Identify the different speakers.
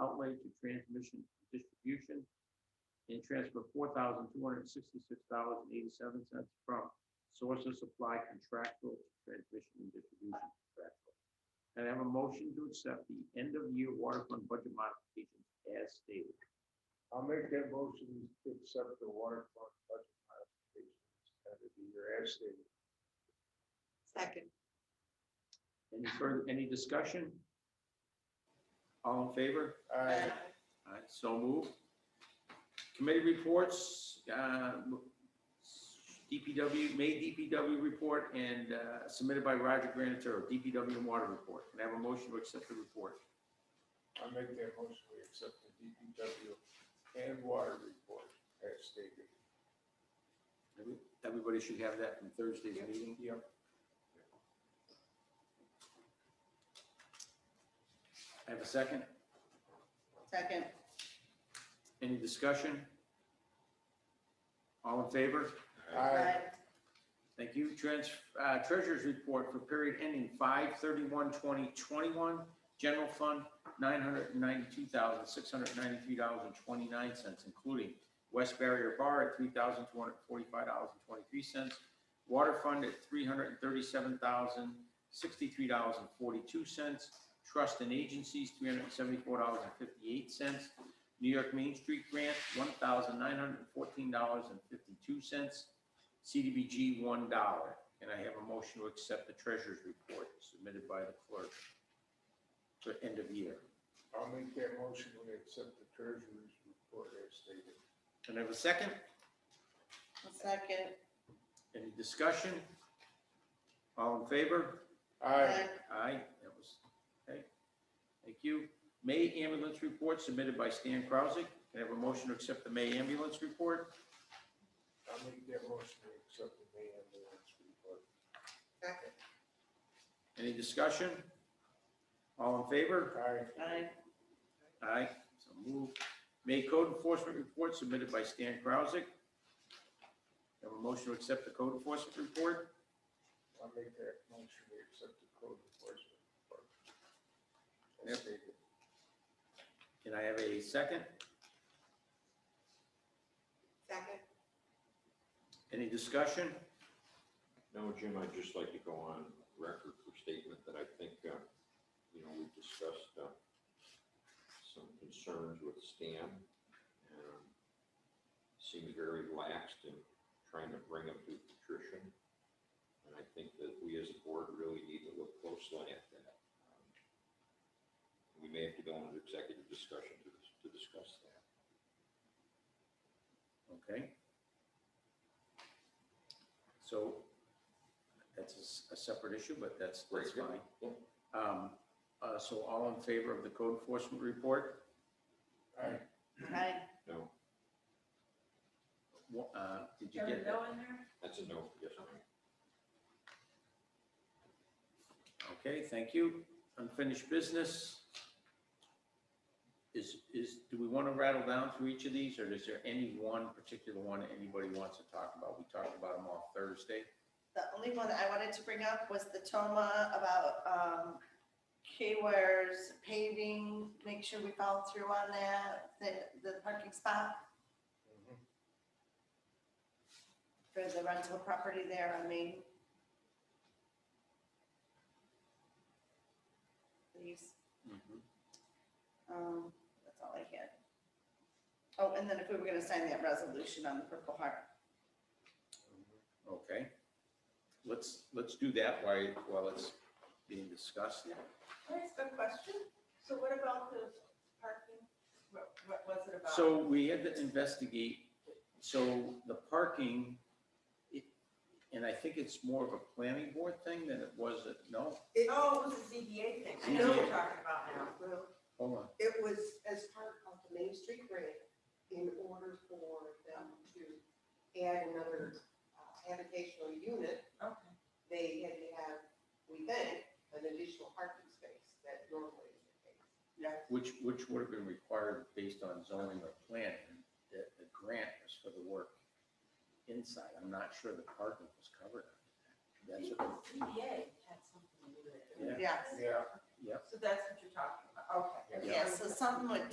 Speaker 1: outlay to transmission and distribution and transfer four thousand two hundred and sixty-six dollars and eighty-seven cents from source of supply contractual to transmission and distribution contractual. And I have a motion to accept the end-of-year water fund budget modifications as stated.
Speaker 2: I'll make that motion to accept the waterfront budget modifications at the year as stated.
Speaker 3: Second.
Speaker 1: Any further, any discussion? All in favor?
Speaker 2: Aye.
Speaker 1: All right, so moved. Committee reports, uh, DPW, May DPW report and uh, submitted by Roger Granataro, DPW and water report. Can I have a motion to accept the report?
Speaker 2: I'll make that motion to accept the DPW and water report as stated.
Speaker 1: Every- Everybody should have that from Thursday's meeting.
Speaker 2: Yep.
Speaker 1: I have a second.
Speaker 3: Second.
Speaker 1: Any discussion? All in favor?
Speaker 2: Aye.
Speaker 1: Thank you. Trans, uh, treasurer's report for period ending 2021. general fund, nine hundred and ninety-two thousand, six hundred and ninety-three dollars and twenty-nine cents, including West Barrier Bar at three thousand, two hundred and forty-five dollars and twenty-three cents, water fund at three hundred and thirty-seven thousand, sixty-three dollars and forty-two cents, trust and agencies, three hundred and seventy-four dollars and fifty-eight cents, New York Main Street grant, one thousand, nine hundred and fourteen dollars and fifty-two cents, CDBG one dollar. And I have a motion to accept the treasurer's report submitted by the clerk for end of year.
Speaker 2: I'll make that motion to accept the treasurer's report as stated.
Speaker 1: Can I have a second?
Speaker 3: Second.
Speaker 1: Any discussion? All in favor?
Speaker 2: Aye.
Speaker 1: Aye, that was, okay. Thank you. May ambulance report submitted by Stan Krausik. Can I have a motion to accept the May ambulance report?
Speaker 2: I'll make that motion to accept the May ambulance report.
Speaker 3: Second.
Speaker 1: Any discussion? All in favor?
Speaker 2: Aye.
Speaker 3: Aye.
Speaker 1: Aye, so moved. May code enforcement report submitted by Stan Krausik. Have a motion to accept the code enforcement report.
Speaker 2: I'll make that motion to accept the code enforcement report.
Speaker 1: Yep.
Speaker 2: As stated.
Speaker 1: Can I have a second?
Speaker 3: Second.
Speaker 1: Any discussion?
Speaker 4: No, Jim, I'd just like to go on record for statement that I think, uh, you know, we discussed uh, some concerns with Stan. um, Seems very laxed in trying to bring him to patricia And I think that we as a board really need to look closely at that. Um, We may have to go into executive discussion to to discuss that.
Speaker 1: Okay. So that's a s- a separate issue, but that's, that's
Speaker 4: Right,
Speaker 1: fine.
Speaker 4: yeah,
Speaker 1: Um, uh, So all in favor of the code enforcement report?
Speaker 2: Aye.
Speaker 3: Aye.
Speaker 4: No,
Speaker 1: Wha- uh, Did you get that?
Speaker 4: that's a no, yes, ma'am.
Speaker 1: Okay, thank you. Unfinished business. Is, is, do we want to rattle down through each of these, or is there any one particular one anybody wants to talk about? We talked about them all Thursday.
Speaker 3: The only one I wanted to bring up was the Toma about um, K-Ware's paving, make sure we follow through on that, the, the parking spot
Speaker 2: Mm-hmm,
Speaker 3: for the rental property there on Main. Please, um, that's all I had. Oh, and then if we were gonna sign that resolution on the Purple Heart.
Speaker 2: mm-hmm.
Speaker 1: Okay. Let's, let's do that while, while it's being discussed.
Speaker 5: Can I ask a question? So what about the parking? What, what was it about?
Speaker 1: So we had to investigate, so the parking, it- and I think it's more of a planning board thing than it was, a no,
Speaker 6: It,
Speaker 5: Oh, it was a ZBA thing. I know what you're talking about now.
Speaker 6: well,
Speaker 1: hold on.
Speaker 6: it was as part of the Main Street grant in order for them to add another uh, habitational unit.
Speaker 5: Okay.
Speaker 6: They had to have, we think, an additional parking space that normally is the case. That's
Speaker 1: Which, which would have been required based on zoning or planning, the, the grant was for the work inside, I'm not sure the parking was covered.
Speaker 5: I
Speaker 1: That's,
Speaker 5: think
Speaker 1: what-
Speaker 5: the ZBA had something to do with it.
Speaker 1: Yeah.
Speaker 3: Yes,
Speaker 2: Yeah.
Speaker 1: yep.
Speaker 5: So that's what you're talking about, okay.
Speaker 3: yes, so something would